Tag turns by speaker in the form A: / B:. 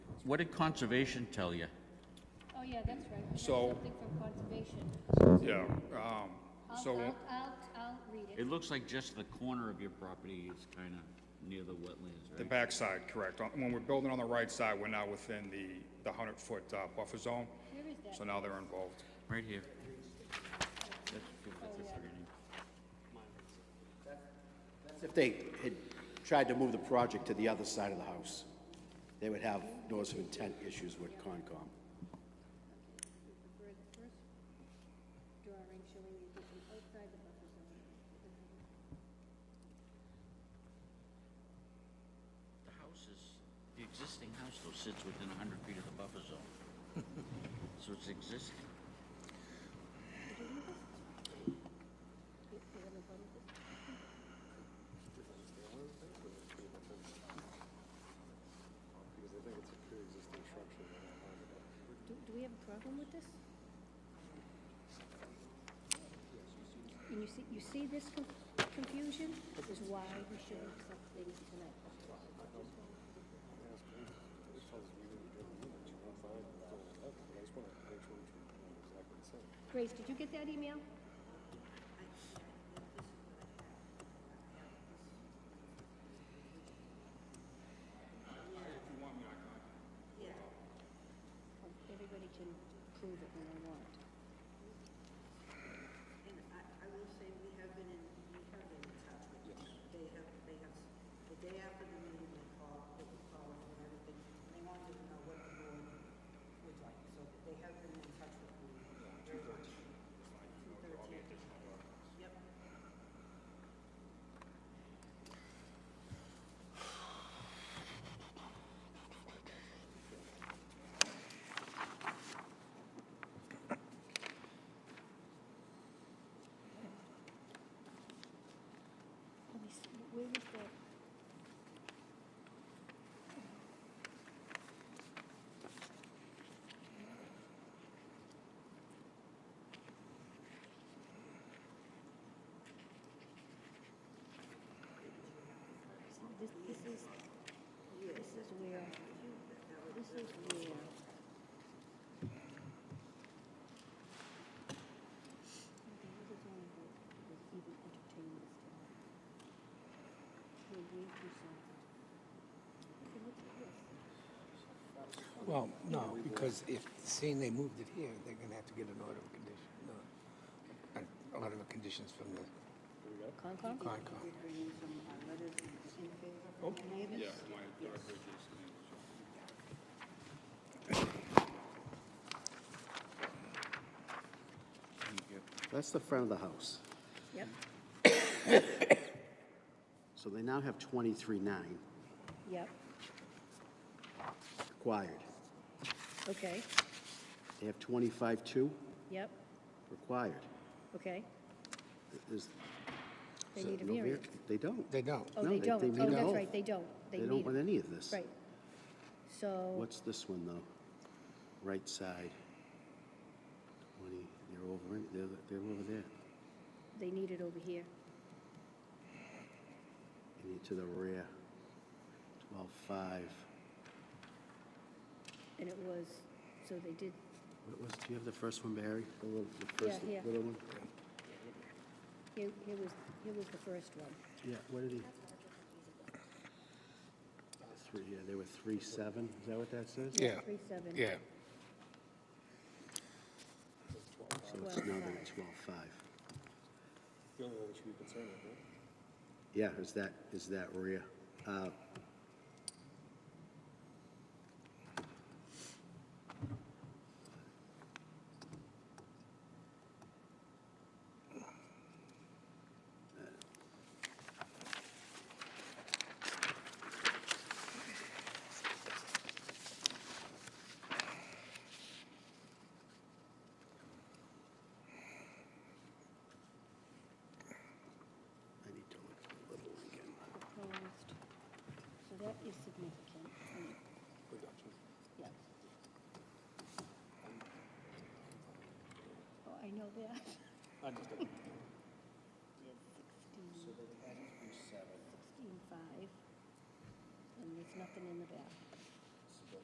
A: What did conservation tell you?
B: Oh, yeah, that's right. We got
C: So-
B: Something from conservation.
C: Yeah, um,
B: I'll,
C: so,
B: I'll, I'll, I'll read it.
A: It looks like just the corner of your property is kind of near the wetlands,
C: the
A: right?
C: backside, correct. On- When we're building on the right side, we're now within the, the hundred-foot buffer zone,
B: Where is that?
C: so now they're involved.
A: Right here. That's, that's a beginning.
D: That's if they had tried to move the project to the other side of the house. They would have notice of intent issues with Concom.
B: For the first drawing showing the addition outside the buffer zone.
A: The house is, the existing house though sits within hundred feet of the buffer zone. So it's existing.
B: Do, do we have a problem with this? And you see, you see this con- confusion? This is why we should accept things tonight. Grace, did you get that email? Everybody can prove it when they want.
E: And I, I will say, we have been in, we have been in touch with them. They have, they have, the day after the meeting, they called, they were calling and everything, and they wanted to know what the board would like, so they have been in touch with me. very much. Yep.
B: Let me see, where is that? This, this is, this is where, this is where. Okay, this is only what was even entertaining this time. To agree to something. Okay, look at this.
F: Well, no, because if, seeing they moved it here, they're gonna have to get an order of condition, no, an order of conditions from the
B: Concom?
F: Concom.
C: Yeah, my director, Jason.
D: That's the front of the house.
B: Yep.
D: So they now have 23.9
B: Yep,
D: required.
B: okay,
D: They have 25.2
B: yep,
D: required.
B: okay.
D: Is-
B: They
D: is
B: need a
D: it no var-
B: variance.
D: They don't.
F: They don't.
B: Oh,
D: No,
B: they
D: they-
B: don't,
D: they
B: oh,
D: need
B: that's
D: both.
B: right, they don't, they
D: They
B: need it.
D: don't want any of this.
B: Right. So,
D: What's this one, though? Right side. 20, they're over, in- they're, they're over there.
B: they need it over here,
D: And you're to the rear. 12.5.
B: and it was, so they did,
D: What was, do you have the first one, Barry? The little, the
B: Yeah,
D: first
B: here.
D: little one?
B: here, here was, here was the first one.
D: Yeah, what did he? Three, yeah, they were three, seven, is that what that says?
F: Yeah,
B: Three, seven.
F: yeah.
D: So it's now they're at twelve, five.
G: The only one we should be concerned with, right?
D: Yeah, is that, is that rear? Uh, I need to look at the little one again.
B: Proposed, so that is significant. and- Yeah. Oh, I know that. Yeah, sixteen. Sixteen five, and there's nothing in the back.